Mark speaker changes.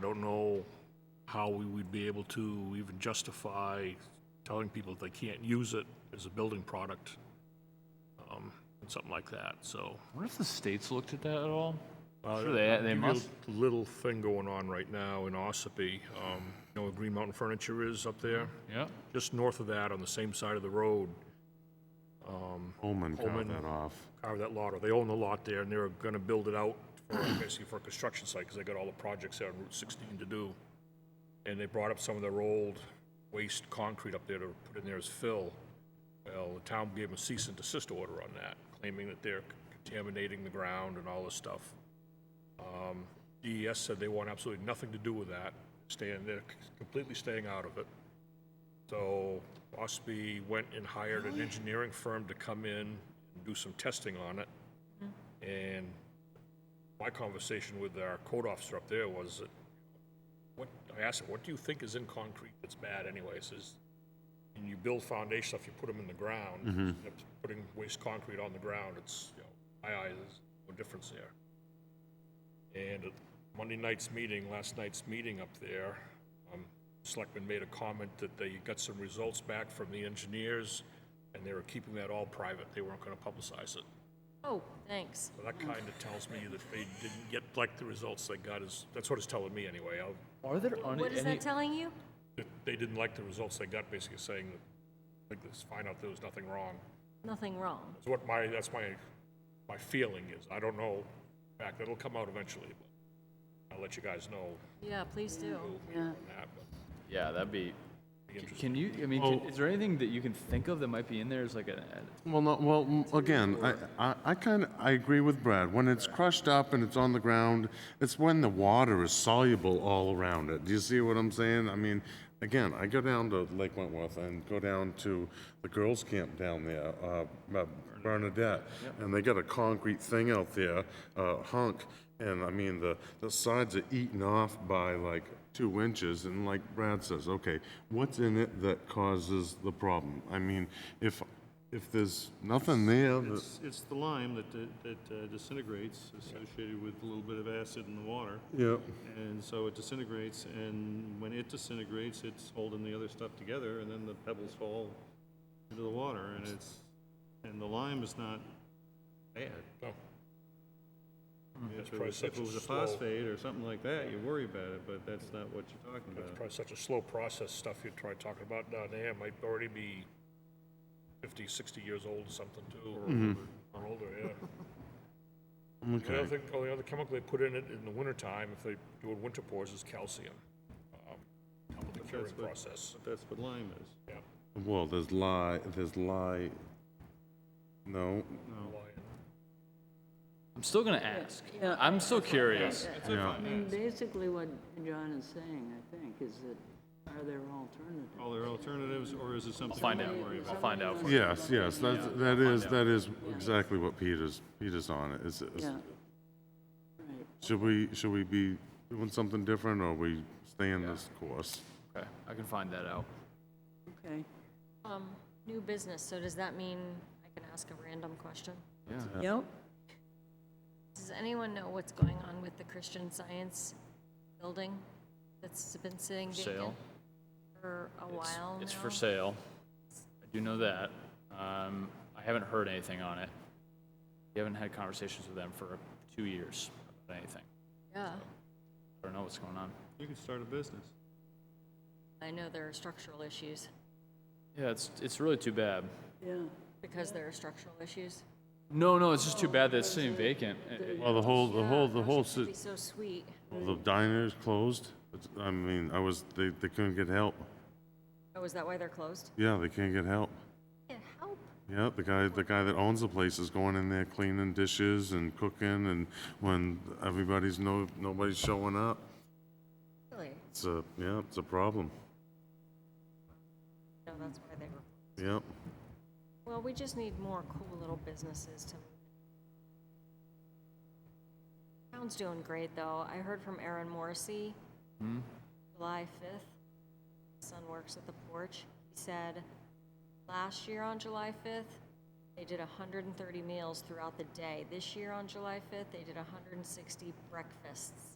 Speaker 1: don't know how we would be able to even justify telling people that they can't use it as a building product, um, and something like that, so.
Speaker 2: wonder if the states looked at that at all? Sure,
Speaker 1: I'll
Speaker 2: they,
Speaker 1: give
Speaker 2: they
Speaker 1: you a
Speaker 2: must.
Speaker 1: Little thing going on right now in Ossipee, um, you know where Green Mountain Furniture is up there?
Speaker 2: Yeah.
Speaker 1: Just north of that, on the same side of the road, Holman.
Speaker 3: Holman carved that off.
Speaker 1: carve that lot, or they own the lot there, and they're gonna build it out for, basically for a construction site, because they got all the projects there on Route 16 to do. And they brought up some of their old waste concrete up there to put in there as fill. Well, the town gave them a cease and desist order on that, claiming that they're contaminating the ground and all this stuff. Um, DES said they want absolutely nothing to do with that, staying, they're completely staying out of it. So Ospey went and hired an engineering firm to come in and do some testing on it. And my conversation with our code officer up there was that, what, I asked him, what do you think is in concrete that's bad anyway? He says, and you build foundation stuff, you put them in the ground, end up putting waste concrete on the ground, it's, you know, my eyes, there's no difference there. And at Monday night's meeting, last night's meeting up there, um, Selectman made a comment that they got some results back from the engineers, and they were keeping that all private, they weren't gonna publicize it.
Speaker 4: Oh, thanks.
Speaker 1: So that kinda tells me that they didn't get, like, the results they got is, that's what it's telling me anyway. I'll-
Speaker 2: Are there
Speaker 4: What is that telling you?
Speaker 1: that They didn't like the results they got, basically saying that, like, let's find out there was nothing wrong.
Speaker 4: Nothing wrong.
Speaker 1: That's what my, that's my, my feeling is. I don't know, in fact, it'll come out eventually, but I'll let you guys know
Speaker 4: Yeah, please do.
Speaker 1: on that, but.
Speaker 2: Yeah, that'd be.
Speaker 1: Be interesting.
Speaker 2: Can you? I mean, can, is there anything that you can think of that might be in there? Is like a.
Speaker 3: Well, no, well, m- again, I- I, I kind of, I agree with Brad. When it's crushed up and it's on the ground, it's when the water is soluble all around it. Do you see what I'm saying? I mean, again, I go down to Lake Wentworth and go down to the girls' camp down there, uh, uh, Bernadette, and they got a concrete thing out there, uh, hunk, and I mean, the, the sides are eaten off by like two inches, and like Brad says, okay, what's in it that causes the problem? I mean, if if there's nothing there, that-
Speaker 5: It's, it's the lime that, that uh, disintegrates associated with a little bit of acid in the water.
Speaker 3: yeah,
Speaker 5: And so it disintegrates, and when it disintegrates, it's holding the other stuff together, and then the pebbles fall into the water, and it's, and the lime is not bad.
Speaker 1: Well,
Speaker 5: If
Speaker 1: probably
Speaker 5: it was- if
Speaker 1: such a
Speaker 5: it was a
Speaker 1: slow-
Speaker 5: phosphate or something like that, you worry about it, but that's not what you're talking
Speaker 1: It's
Speaker 5: about.
Speaker 1: probably such a slow process, stuff you try talking about down there might already be 50, 60 years old, something too, or older- or older, yeah. The other
Speaker 3: okay.
Speaker 1: thing, oh, the other chemical they put in it in the wintertime, if they do it winter pours, is calcium. um, Help with the curing
Speaker 5: That's what-
Speaker 1: process,
Speaker 5: But that's what lime is.
Speaker 1: yeah.
Speaker 3: Well, there's lie, there's lie, no,
Speaker 2: I'm still gonna ask. I'm still curious.
Speaker 3: yeah.
Speaker 6: I mean, basically what John is saying, I think, is that are there alternatives?
Speaker 5: All there are alternatives, or is it something?
Speaker 2: Find
Speaker 5: we
Speaker 2: out.
Speaker 5: worry about?
Speaker 2: I'll find out for you.
Speaker 3: Yes, yes, that's, that is, that is exactly what Peter's, Peter's on, is, is,
Speaker 6: Yeah. Right.
Speaker 3: should we, should we be doing something different, or we stay in this course?
Speaker 2: Okay, I can find that out.
Speaker 6: Okay.
Speaker 4: Um, new business, so does that mean I can ask a random question?
Speaker 6: Yep.
Speaker 4: Does anyone know what's going on with the Christian Science building that's been sitting vacant
Speaker 2: Sale.
Speaker 4: for a
Speaker 2: It's-
Speaker 4: while
Speaker 2: It's
Speaker 4: now?
Speaker 2: for sale. I do know that. Um, I haven't heard anything on it. We haven't had conversations with them for two years about anything.
Speaker 4: Yeah,
Speaker 2: I don't know what's going on.
Speaker 5: You could start a business.
Speaker 4: I know there are structural issues,
Speaker 2: Yeah, it's it's really too bad.
Speaker 6: Yeah.
Speaker 4: because there are structural issues.
Speaker 2: No, no, it's just too bad that it's sitting vacant. Uh, uh,
Speaker 3: Well, the whole, the
Speaker 4: Yeah,
Speaker 3: whole, the
Speaker 4: gosh,
Speaker 3: whole,
Speaker 4: it would
Speaker 3: si-
Speaker 4: Be so sweet.
Speaker 3: the diner's closed, It's- I mean, I was, they, they couldn't get help,
Speaker 4: Oh, is that why they're closed?
Speaker 3: yeah, they can't get help.
Speaker 4: Yeah, help.
Speaker 3: Yeah, the guy, the guy that owns the place is going in there cleaning dishes and cooking, and when everybody's no, nobody's showing up,
Speaker 4: Really?
Speaker 3: it's a, yeah, it's a problem.
Speaker 4: No, that's why they were.
Speaker 3: Yep.
Speaker 4: Well, we just need more cool little businesses to. Town's doing great, though. I heard from Aaron Morrissey, July 5th. Son works at the porch. He said, last year on July 5th, they did 130 meals throughout the day. This year on July 5th, they did 160 breakfasts.